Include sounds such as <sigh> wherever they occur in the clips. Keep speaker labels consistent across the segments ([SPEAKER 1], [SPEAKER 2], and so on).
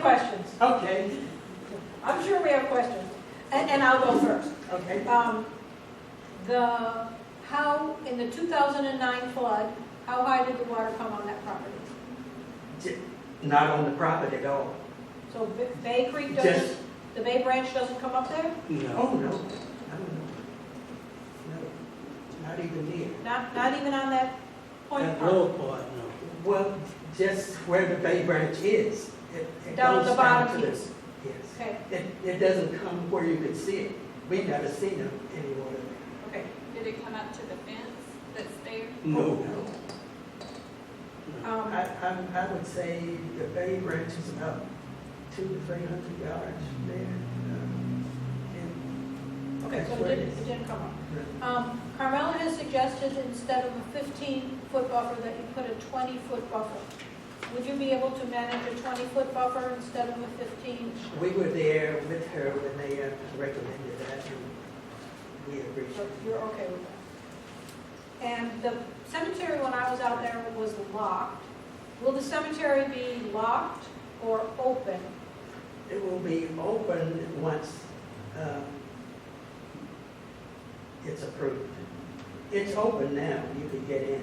[SPEAKER 1] questions.
[SPEAKER 2] Okay,
[SPEAKER 1] I'm sure we have questions. And, and I'll go first.
[SPEAKER 2] okay.
[SPEAKER 1] Um, The, how, in the 2009 flood, how high did the water come on that property?
[SPEAKER 2] J- Not on the property at all.
[SPEAKER 1] So B- Bay Creek
[SPEAKER 2] Just,
[SPEAKER 1] doesn't, the Bay Branch doesn't come up there?
[SPEAKER 2] no, no, no, no. No, Not even there.
[SPEAKER 1] Not, not even on that point
[SPEAKER 3] That
[SPEAKER 1] part?
[SPEAKER 3] lower part, no.
[SPEAKER 2] Well, just where the Bay Branch is. It- it
[SPEAKER 1] Down at
[SPEAKER 2] goes
[SPEAKER 1] the bottom
[SPEAKER 2] to the-
[SPEAKER 1] piece.
[SPEAKER 2] Yes.
[SPEAKER 1] Okay,
[SPEAKER 2] It, it doesn't come where you can see it. We never seen it anywhere.
[SPEAKER 1] okay.
[SPEAKER 4] Did it come up to the fence that's there?
[SPEAKER 2] Oh,
[SPEAKER 3] No,
[SPEAKER 2] no.
[SPEAKER 1] Um,
[SPEAKER 2] I, I, I would say the Bay Branch is about two to three hundred yards there. um, and
[SPEAKER 1] Okay, so it didn't, it didn't come up. Um, Carmella has suggested instead of a 15-foot buffer, that you put a 20-foot buffer. Would you be able to manage a 20-foot buffer instead of a 15?
[SPEAKER 2] We were there with her when they uh, recommended that, and we agreed.
[SPEAKER 1] So You're okay with that? And the cemetery, when I was out there, was locked. Will the cemetery be locked or open?
[SPEAKER 2] It will be open once um, it's approved. It's open now, you can get in,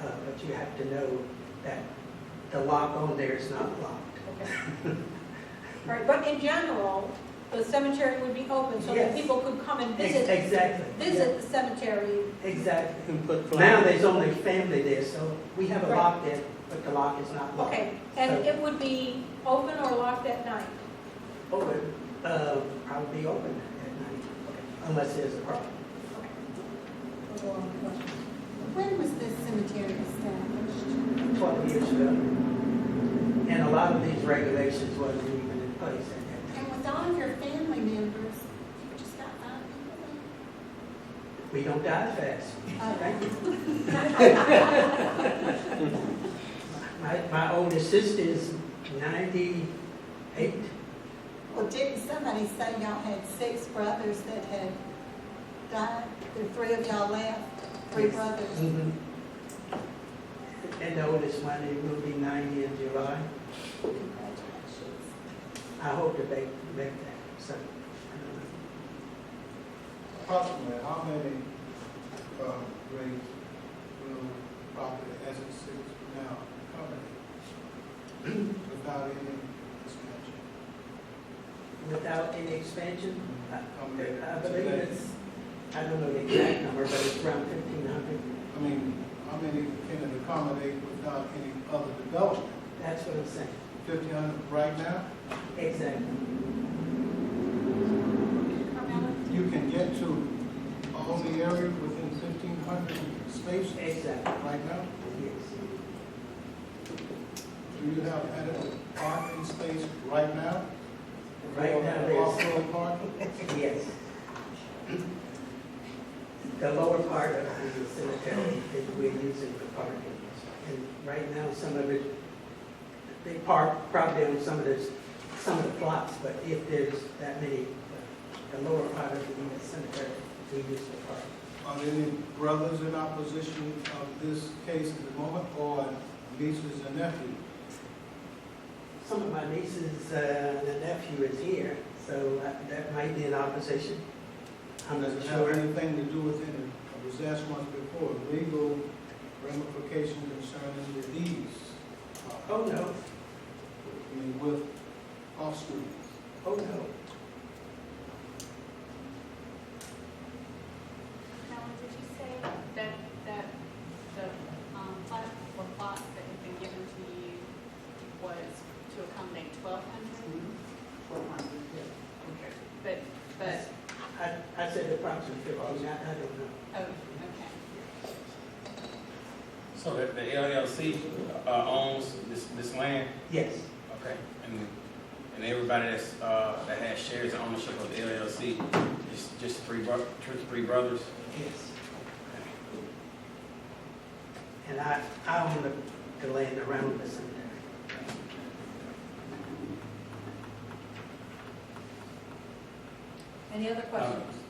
[SPEAKER 2] Uh, but you have to know that the lock on there is not locked.
[SPEAKER 1] Okay.
[SPEAKER 2] <laughs>
[SPEAKER 1] All right, but in general, the cemetery would be open so that
[SPEAKER 2] Yes.
[SPEAKER 1] people could come and
[SPEAKER 2] Ex-
[SPEAKER 1] visit,
[SPEAKER 2] Exactly.
[SPEAKER 1] visit the cemetery.
[SPEAKER 2] Yeah, Exactly.
[SPEAKER 3] and put
[SPEAKER 2] Now
[SPEAKER 3] flowers.
[SPEAKER 2] there's only family there, so we have a
[SPEAKER 1] Right.
[SPEAKER 2] lock there, but the lock is not locked.
[SPEAKER 1] Okay, and it would be open or locked at night?
[SPEAKER 2] Open, uh, I'll be open at night, unless there's a problem.
[SPEAKER 1] Okay. No more questions.
[SPEAKER 5] When was this cemetery established?
[SPEAKER 2] 12 years ago. And a lot of these regulations wasn't even in place at that time.
[SPEAKER 5] And with all of your family members, you just got five people
[SPEAKER 2] We don't die fast.
[SPEAKER 5] there?
[SPEAKER 2] Thank you. My, my oldest sister is 98.
[SPEAKER 5] Well, didn't somebody say y'all had six brothers that had died? There were three of y'all left, three
[SPEAKER 2] Yes.
[SPEAKER 5] brothers.
[SPEAKER 2] Mhm. And the oldest one, he will be 90 in July.
[SPEAKER 5] Congratulations.
[SPEAKER 2] I hope to make, make that, so. I don't know.
[SPEAKER 6] Approximately, how many, uh, grades will property as it sits now cover without any expansion?
[SPEAKER 2] Without any expansion, I
[SPEAKER 6] Come here
[SPEAKER 2] I believe
[SPEAKER 6] today.
[SPEAKER 2] it's, I don't know the exact number, but it's around 1,500.
[SPEAKER 6] I mean, how many can it accommodate without any other development?
[SPEAKER 2] That's what I'm saying.
[SPEAKER 6] Fifteen hundred right now,
[SPEAKER 2] Exactly.
[SPEAKER 4] Carmella?
[SPEAKER 6] you can get to all the area within fifteen hundred spaces
[SPEAKER 2] Exactly,
[SPEAKER 6] right now?
[SPEAKER 2] yes.
[SPEAKER 6] Do you have adequate parking space right now?
[SPEAKER 2] Right now, there's,
[SPEAKER 6] Off-road parking?
[SPEAKER 2] yes. The lower part of the cemetery that we're using for parking. And right now, some of it, they park probably on some of this, some of the plots, but if there's that many, the lower part of the uh, cemetery, we use for parking.
[SPEAKER 6] Are there any brothers in opposition of this case at the moment, or nieces and nephews?
[SPEAKER 2] Some of my nieces, uh, and nephew is here, so that- that might be an opposition. I'm not
[SPEAKER 6] Does it have
[SPEAKER 2] sure.
[SPEAKER 6] anything to do with any, I was asked once before, legal ramifications concerning the deeds? I
[SPEAKER 2] Oh, no,
[SPEAKER 6] mean, with offspring?
[SPEAKER 2] oh, no.
[SPEAKER 4] Helen, did you say that, that the um, plot or plots that had been given to you was to accommodate twelve hundred?
[SPEAKER 2] Okay.
[SPEAKER 4] But, but,
[SPEAKER 2] I, I said approximately fifteen, I, I don't know.
[SPEAKER 4] oh, okay.
[SPEAKER 7] So that the LLC uh, owns this, this land,
[SPEAKER 2] Yes,
[SPEAKER 7] okay? And, and everybody that's, uh, that has shares and ownership of the LLC, just, just three bro, two, three brothers?
[SPEAKER 2] yes. And I, I own the, the land around the cemetery.
[SPEAKER 1] Any other questions?